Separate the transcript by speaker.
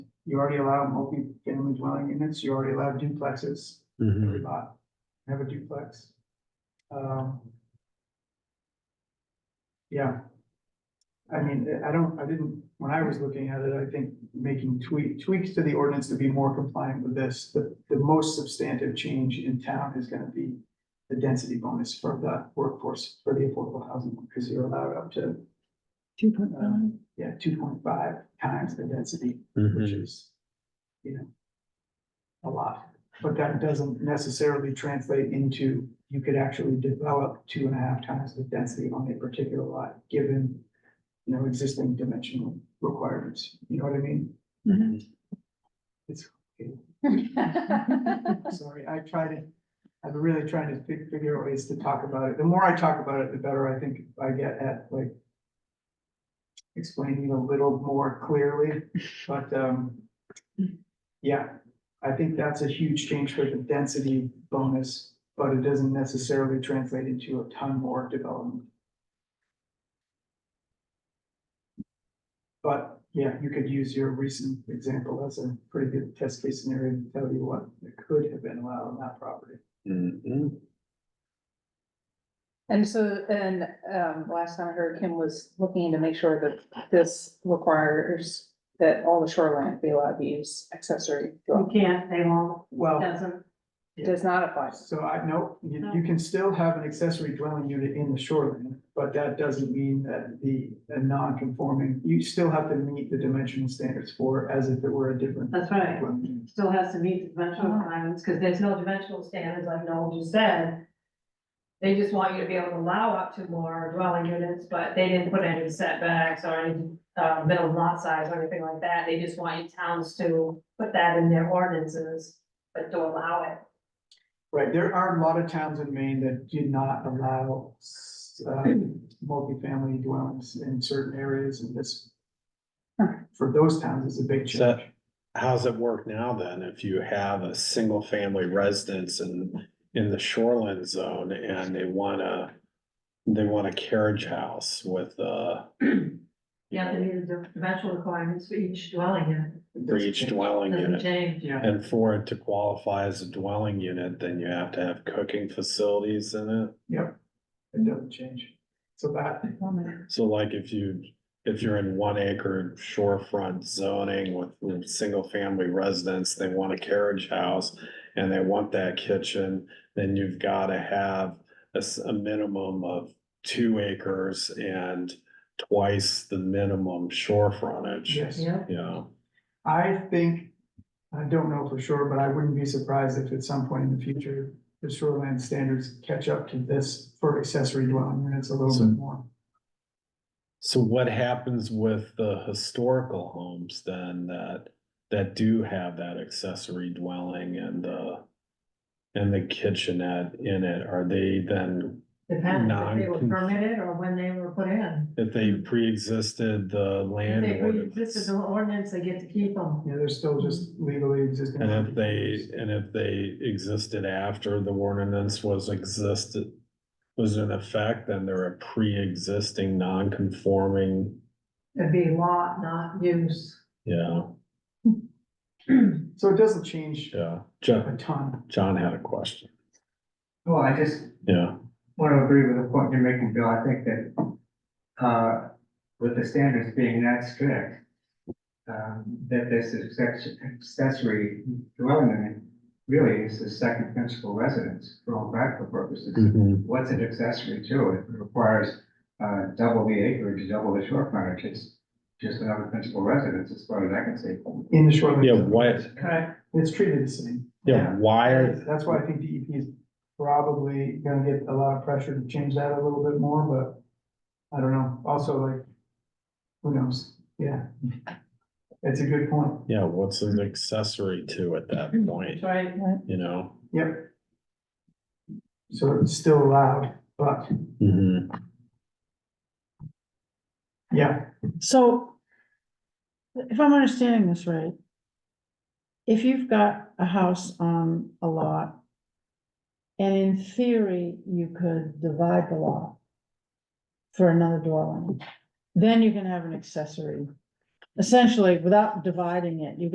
Speaker 1: you already allow multi-family dwelling units, you already allow duplexes,
Speaker 2: Mhm.
Speaker 1: every lot, have a duplex. Um. Yeah. I mean, I- I don't, I didn't, when I was looking at it, I think making tweak, tweaks to the ordinance to be more compliant with this, the, the most substantive change in town is gonna be the density bonus for the workforce, for the affordable housing, because you're allowed up to,
Speaker 3: Two point
Speaker 1: um, yeah, two point five times the density which
Speaker 2: Mhm.
Speaker 1: is, you know, a lot. But that doesn't necessarily translate into, you could actually develop two and a half times the density on a particular lot, given, you know, existing dimensional requirements, you know what I mean? It's,
Speaker 3: five.
Speaker 1: sorry, I try to, I've been really trying to fi- figure out ways to talk about it. The more I talk about it, the better I think I get at, like, explaining a little more clearly, but, um, yeah, I think that's a huge change for the density bonus, but it doesn't necessarily translate into a ton more development. But yeah, you could use your recent example as a pretty good test case scenario to tell you what could have been allowed on that property.
Speaker 2: Mhm.
Speaker 3: And so, and, um, last time I heard Kim was looking to make sure that this requires that all the shoreline be allowed to use accessory.
Speaker 4: You
Speaker 3: dwelling.
Speaker 4: can't, they won't,
Speaker 1: Well,
Speaker 4: doesn't,
Speaker 3: It Does not apply.
Speaker 1: so I know, you, you can still have an accessory dwelling unit in the shoreline, but that doesn't mean that the, a non-conforming, you still have to meet the dimensional standards for as if it were a different.
Speaker 4: that's right.
Speaker 1: dwelling unit.
Speaker 4: Still has to meet the dimensional requirements, because there's no dimensional standards like Noel just said. They just want you to be able to allow up to more dwelling units, but they didn't put any setbacks or any, uh, minimum lot size or anything like that. They just want you towns to put that in their ordinances, but to allow it.
Speaker 1: Right, there are a lot of towns in Maine that do not allow uh, multifamily dwellings in certain areas and this. For those towns is a big
Speaker 2: So-
Speaker 1: change.
Speaker 2: How's it work now then, if you have a single family residence and in the shoreline zone and they wanna. They want a carriage house with uh
Speaker 4: You have to meet the dimensional requirements for each dwelling unit,
Speaker 1: It
Speaker 2: for
Speaker 1: doesn't
Speaker 2: each
Speaker 1: change.
Speaker 2: dwelling
Speaker 4: doesn't
Speaker 2: unit.
Speaker 4: change.
Speaker 1: Yeah,
Speaker 2: And for it to qualify as a dwelling unit, then you have to have cooking facilities in it.
Speaker 1: yep, it doesn't change. So that,
Speaker 2: So like if you, if you're in one acre shorefront zoning with, with single family residence, they want a carriage house. And they want that kitchen, then you've gotta have a, s- a minimum of two acres and twice the minimum shore frontage.
Speaker 1: yes,
Speaker 4: Yeah,
Speaker 2: You know,
Speaker 1: I think, I don't know for sure, but I wouldn't be surprised if at some point in the future, the shoreline standards catch up to this for accessory dwelling units a little
Speaker 2: So-
Speaker 1: bit more.
Speaker 2: so what happens with the historical homes then that, that do have that accessory dwelling and, uh. And the kitchenette in it, are they then
Speaker 4: depends if they were
Speaker 2: Non-con-
Speaker 4: permitted or when they were put in.
Speaker 2: If they pre-existed the land
Speaker 4: They read- This
Speaker 2: ordinance,
Speaker 4: is an ordinance, they get to keep them.
Speaker 1: Yeah, they're still just legally existing.
Speaker 2: and if they, and if they existed after the ordinance was existed, was in effect, then they're a pre-existing non-conforming,
Speaker 4: It'd be lot, not use.
Speaker 2: yeah,
Speaker 1: So it doesn't change
Speaker 2: yeah. John,
Speaker 1: a ton.
Speaker 2: John had a question,
Speaker 5: Well, I just
Speaker 2: yeah,
Speaker 5: want to agree with the point you're making, Bill. I think that, uh, with the standards being that strict, um, that this is access- accessory dwelling unit really is the second principal residence for all practical purposes.
Speaker 2: Mm-hmm.
Speaker 5: What's an accessory to? It requires, uh, double the acreage, double the shore frontage. It's just another principal residence as far as I can see.
Speaker 1: In the shoreline.
Speaker 2: yeah,
Speaker 1: zone.
Speaker 2: why,
Speaker 4: Correct.
Speaker 1: It's treated the same.
Speaker 2: yeah, why are,
Speaker 1: That's why I think DEP is probably gonna get a lot of pressure to change that a little bit more, but I don't know. Also like, who knows? Yeah. It's a good point.
Speaker 2: yeah, what's an accessory to at that point,
Speaker 4: Right.
Speaker 2: you know?
Speaker 1: Yep. So it's still allowed, but
Speaker 2: Mhm.
Speaker 1: yeah,
Speaker 6: So if I'm understanding this right, if you've got a house on a lot, and in theory, you could divide the lot for another dwelling, then you can have an accessory. Essentially, without dividing it, you